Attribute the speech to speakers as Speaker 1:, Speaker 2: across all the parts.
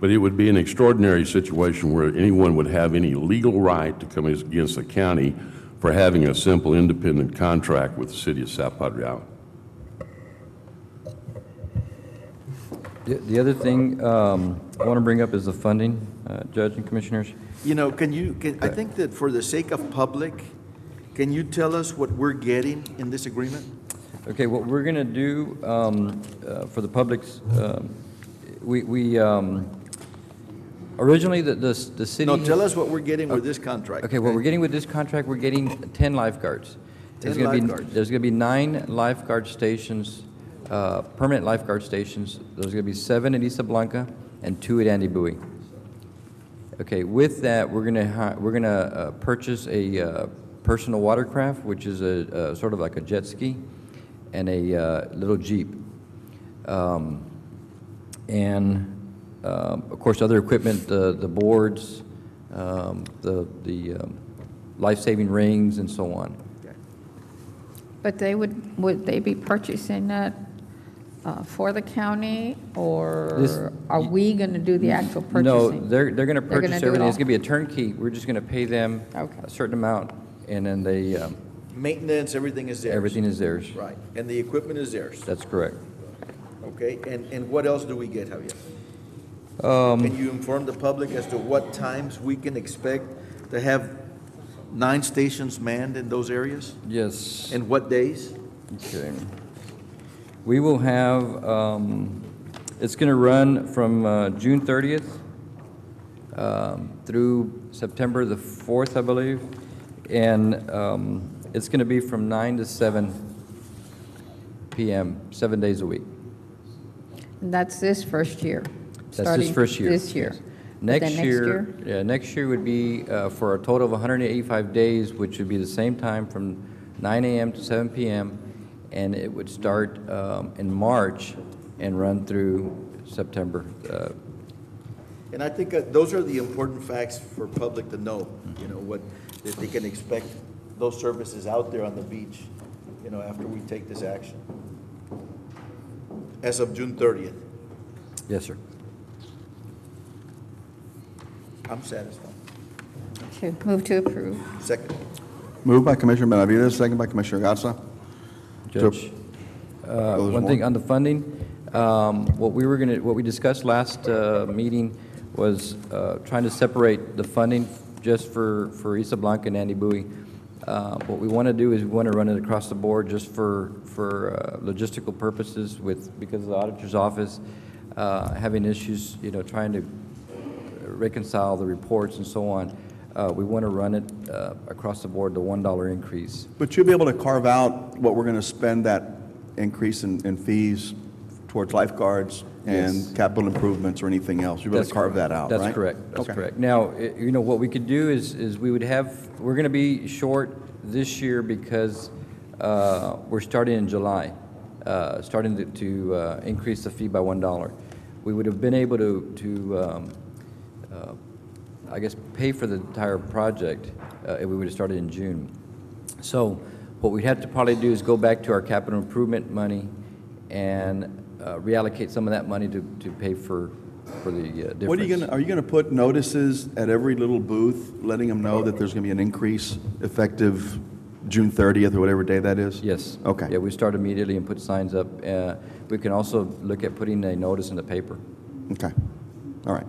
Speaker 1: But it would be an extraordinary situation where anyone would have any legal right to come against the county for having a simple independent contract with the city of South Padre Island.
Speaker 2: The- The other thing um, I want to bring up is the funding, uh, Judge and Commissioners.
Speaker 3: You know, can you, can, I think that for the sake of public, can you tell us what we're getting in this agreement?
Speaker 2: Okay, what we're going to do um, uh, for the public's, um, we, we um, originally, the, the the city...
Speaker 3: No, tell us what we're getting with this contract.
Speaker 2: Okay, what we're getting with this contract, we're getting 10 lifeguards. There's
Speaker 3: 10
Speaker 2: gonna be-
Speaker 3: lifeguards.
Speaker 2: There's going to be nine lifeguard stations, uh, permanent lifeguard stations. There's going to be seven at Isla Blanca and two at Andy Bowie. Okay, with that, we're going to, we're going to purchase a uh, personal watercraft, which is a, a sort of like a jet ski, and a uh, little Jeep. Um, and, um, of course, other equipment, the the boards, um, the the um, life-saving rings, and so on.
Speaker 4: But they would, would they be purchasing that uh, for the county,
Speaker 2: This-
Speaker 4: or are we going to do the actual
Speaker 2: No,
Speaker 4: purchasing?
Speaker 2: they're they're going to
Speaker 4: They're gonna
Speaker 2: purchase
Speaker 4: do it
Speaker 2: everything. It's
Speaker 4: all.
Speaker 2: going to be a turnkey. We're just going to pay them
Speaker 4: Okay.
Speaker 2: a certain amount, and then they, um,
Speaker 3: Maintenance, everything is theirs.
Speaker 2: everything is theirs.
Speaker 3: Right, and the equipment is theirs,
Speaker 2: That's correct.
Speaker 3: okay? And, and what else do we get, Javier?
Speaker 2: Um,
Speaker 3: Can you inform the public as to what times we can expect to have nine stations manned in those areas?
Speaker 2: Yes.
Speaker 3: And what days?
Speaker 2: Okay. We will have, um, it's going to run from uh, June 30th um, through September the 4th, I believe, and um, it's going to be from 9 to 7 PM, seven days a week.
Speaker 4: And That's this first year?
Speaker 2: That's this
Speaker 4: starting
Speaker 2: first year.
Speaker 4: This year.
Speaker 2: yes.
Speaker 4: But then
Speaker 2: Next year, yeah, next year would be uh, for a total of 185 days, which would be the same time from 9 AM to 7 PM, and it would start um, in March and run through September. Uh,
Speaker 3: And I think uh, those are the important facts for public to know, you know, what, that they can expect those services out there on the beach, you know, after we take this action. As of June thirtieth,
Speaker 2: Yes, sir.
Speaker 3: I'm satisfied.
Speaker 4: Okay, move to approve.
Speaker 3: Second.
Speaker 5: Moved by Commissioner Benavides, second by Commissioner Gatsa. To-
Speaker 2: Judge, uh,
Speaker 5: there's
Speaker 2: one
Speaker 5: more.
Speaker 2: thing on the funding, um, what we were going to, what we discussed last uh, meeting was uh, trying to separate the funding just for, for Isla Blanca and Andy Bowie. Uh, What we want to do is we want to run it across the board just for, for uh, logistical purposes with, because the auditor's office uh, having issues, you know, trying to reconcile the reports and so on. Uh, We want to run it uh, across the board, the $1 increase.
Speaker 5: But you'll be able to carve out what we're going to spend that increase in, in fees towards lifeguards
Speaker 2: Yes.
Speaker 5: and capital improvements or anything else. You'll be able
Speaker 2: That's
Speaker 5: to carve
Speaker 2: correct.
Speaker 5: that out, right?
Speaker 2: That's correct, that's
Speaker 5: Okay.
Speaker 2: correct. Now, i- you know, what we could do is, is we would have, we're going to be short this year because uh, we're starting in July, uh, starting to- to uh, increase the fee by $1. We would have been able to, to, um, uh, I guess, pay for the entire project uh, if we would have started in June. So what we'd have to probably do is go back to our capital improvement money and uh, reallocate some of that money to, to pay for, for the uh, difference.
Speaker 5: What are you going to, are you going to put notices at every little booth, letting them know that there's going to be an increase effective June 30th or whatever day that is?
Speaker 2: Yes.
Speaker 5: Okay.
Speaker 2: Yeah, we start immediately and put signs up. Uh, We can also look at putting a notice in the paper.
Speaker 5: Okay, all right.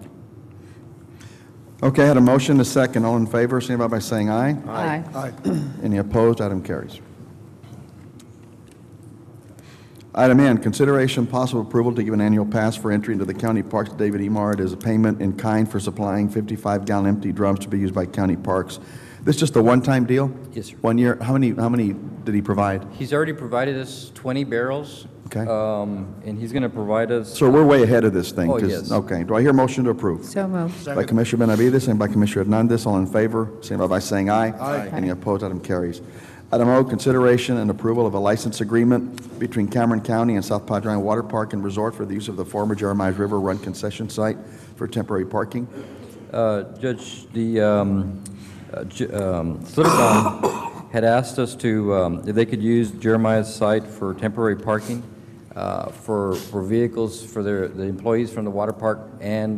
Speaker 5: Okay, I had a motion, a second. All in favor, signify by saying aye.
Speaker 4: Aye.
Speaker 5: Any opposed? Item carries. Item N, consideration possible approval to give an annual pass for entry into the county parks to David E. Mart as a payment in kind for supplying 55-gallon empty drums to be used by county parks. This just a one-time deal?
Speaker 2: Yes, sir.
Speaker 5: One year? How many, how many did he provide?
Speaker 2: He's already provided us 20 barrels.
Speaker 5: Okay.
Speaker 2: um, And he's going to provide us,
Speaker 5: So we're way ahead of this thing.
Speaker 2: Oh,
Speaker 5: 'cause-
Speaker 2: yes.
Speaker 5: Okay. Do I hear motion to approve?
Speaker 4: So moved.
Speaker 5: By Commissioner Benavides, second by Commissioner Hernandez, all in favor, signify by saying aye. Aye. Any opposed, item carries. Item O, consideration and approval of a license agreement between Cameron County and South Padre Island Water Park and Resort for the use of the former Jeremiah River Run concession site for temporary parking.
Speaker 2: uh, Judge, the um, uh, J- um, Slitterbaum had asked us to, um, if they could use Jeremiah's site for temporary parking uh, for, for vehicles, for their, the employees from the water park and